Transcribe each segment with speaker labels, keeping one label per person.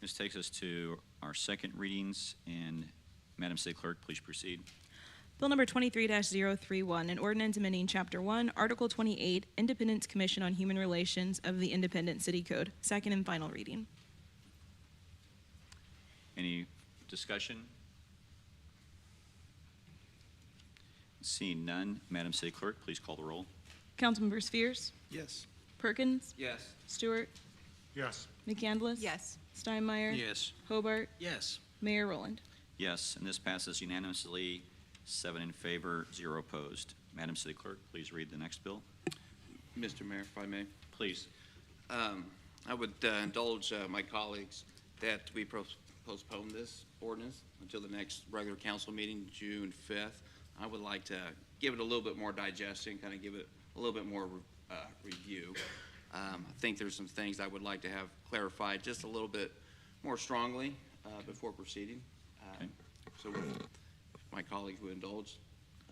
Speaker 1: This takes us to our second readings, and Madam City Clerk, please proceed.
Speaker 2: Bill number 23-031, an ordinance amending Chapter 1, Article 28, Independence Commission on Human Relations of the Independent City Code, second and final reading.
Speaker 1: Any discussion? Seeing none, Madam City Clerk, please call the roll.
Speaker 2: Councilmember Spheres,
Speaker 3: Yes.
Speaker 2: Perkins,
Speaker 3: Yes.
Speaker 2: Stewart,
Speaker 3: Yes.
Speaker 2: McCandless.
Speaker 4: Yes.
Speaker 2: Steinmeier.
Speaker 1: Yes.
Speaker 2: Hobart,
Speaker 3: Yes.
Speaker 2: Mayor Rowland.
Speaker 1: Yes, and this passes unanimously, seven in favor, zero opposed. Madam City Clerk, please read the next bill.
Speaker 5: Mr. Mayor, if I may,
Speaker 1: Please.
Speaker 5: um, I would uh, indulge uh, my colleagues that we pros- postpone this ordinance until the next regular council meeting, June 5th. I would like to give it a little bit more digestion, kind of give it a little bit more uh, review. Um, I think there's some things I would like to have clarified just a little bit more strongly uh, before proceeding. Um,
Speaker 1: Okay.
Speaker 5: So with my colleagues would indulge,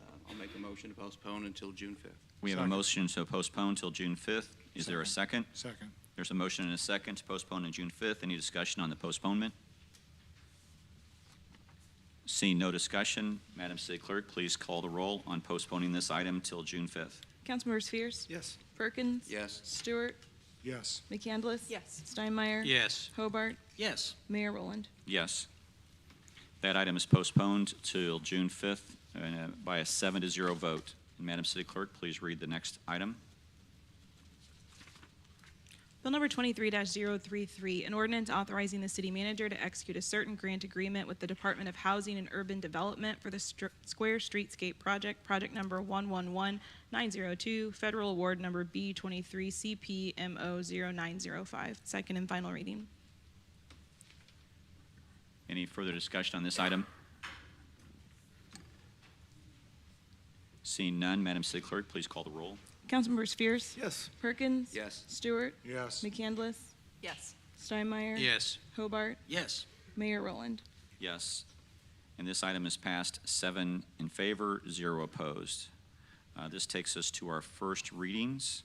Speaker 5: uh, I'll make a motion to postpone until June 5th.
Speaker 1: We have a
Speaker 3: Second.
Speaker 1: motion to postpone till June 5th. Is there a second?
Speaker 3: Second.
Speaker 1: There's a motion and a second to postpone to June 5th. Any discussion on the postponement? Seeing no discussion, Madam City Clerk, please call the roll on postponing this item till June 5th.
Speaker 2: Councilmember Spheres,
Speaker 3: Yes.
Speaker 2: Perkins.
Speaker 5: Yes.
Speaker 2: Stewart,
Speaker 3: Yes.
Speaker 2: McCandless.
Speaker 4: Yes.
Speaker 2: Steinmeier.
Speaker 3: Yes.
Speaker 2: Hobart,
Speaker 3: Yes.
Speaker 2: Mayor Rowland.
Speaker 1: Yes. That item is postponed till June 5th uh, by a seven to zero vote. And Madam City Clerk, please read the next item.
Speaker 2: Bill number 23-033, an ordinance authorizing the city manager to execute a certain grant agreement with the Department of Housing and Urban Development for the Str- Square Streetscape Project, project number 111902, federal award number B23CPMO0905. Second and final reading.
Speaker 1: Any further discussion on this item? Seeing none, Madam City Clerk, please call the roll.
Speaker 2: Councilmember Spheres.
Speaker 3: Yes.
Speaker 2: Perkins.
Speaker 5: Yes.
Speaker 2: Stewart.
Speaker 3: Yes.
Speaker 2: McCandless.
Speaker 4: Yes.
Speaker 2: Steinmeier.
Speaker 3: Yes.
Speaker 2: Hobart.
Speaker 3: Yes.
Speaker 2: Mayor Rowland.
Speaker 1: Yes. And this item is passed seven in favor, zero opposed. Uh, This takes us to our first readings,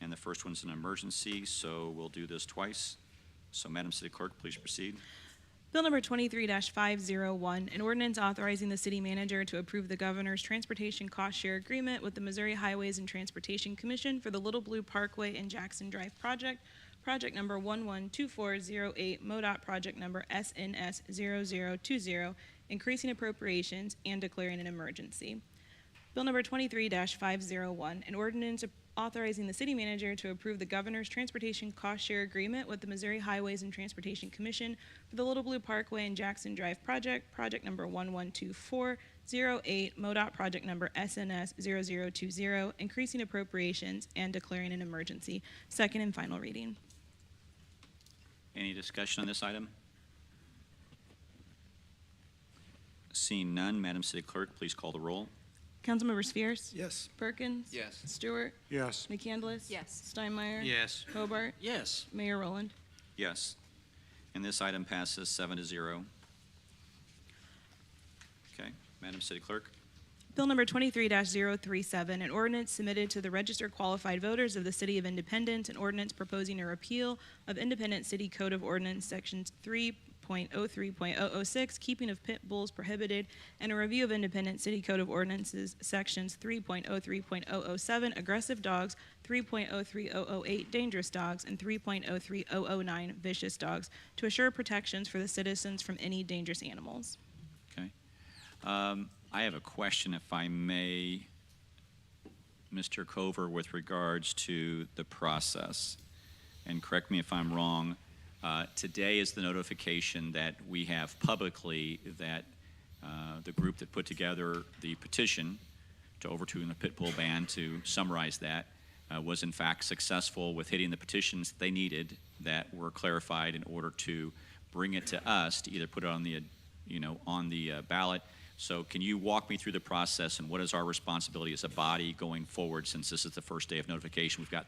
Speaker 1: and the first one's an emergency, so we'll do this twice. So Madam City Clerk, please proceed.
Speaker 2: Bill number 23-501, an ordinance authorizing the city manager to approve the governor's transportation cost share agreement with the Missouri Highways and Transportation Commission for the Little Blue Parkway and Jackson Drive project, project number 112408, MoDOT project number SNS 0020, increasing appropriations and declaring an emergency. Bill number 23-501, an ordinance authorizing the city manager to approve the governor's transportation cost share agreement with the Missouri Highways and Transportation Commission for the Little Blue Parkway and Jackson Drive project, project number 112408, MoDOT project number SNS 0020, increasing appropriations and declaring an emergency. Second and final reading.
Speaker 1: Any discussion on this item? Seeing none, Madam City Clerk, please call the roll.
Speaker 2: Councilmember Spheres?
Speaker 3: Yes.
Speaker 2: Perkins?
Speaker 5: Yes.
Speaker 2: Stewart?
Speaker 3: Yes.
Speaker 2: McCandless?
Speaker 4: Yes.
Speaker 2: Steinmeier?
Speaker 3: Yes.
Speaker 2: Hobart?
Speaker 3: Yes.
Speaker 2: Mayor Rowland?
Speaker 1: Yes. And this item passes seven to zero. Okay, Madam City Clerk?
Speaker 2: Bill number 23-037, an ordinance submitted to the registered qualified voters of the City of Independence, an ordinance proposing a repeal of Independent City Code of Ordinance Sections 3.03.006, keeping of pit bulls prohibited, and a review of Independent City Code of Ordinances Sections 3.03.007, aggressive dogs, 3.03008, dangerous dogs, and 3.03009, vicious dogs, to assure protections for the citizens from any dangerous animals.
Speaker 1: Okay. Um, I have a question, if I may, Mr. Cover, with regards to the process. And correct me if I'm wrong. uh, Today is the notification that we have publicly that uh, the group that put together the petition to overturn the pit bull ban, to summarize that, uh, was in fact successful with hitting the petitions they needed that were clarified in order to bring it to us to either put it on the, you know, on the uh, ballot. So can you walk me through the process and what is our responsibility as a body going forward since this is the first day of notification? We've got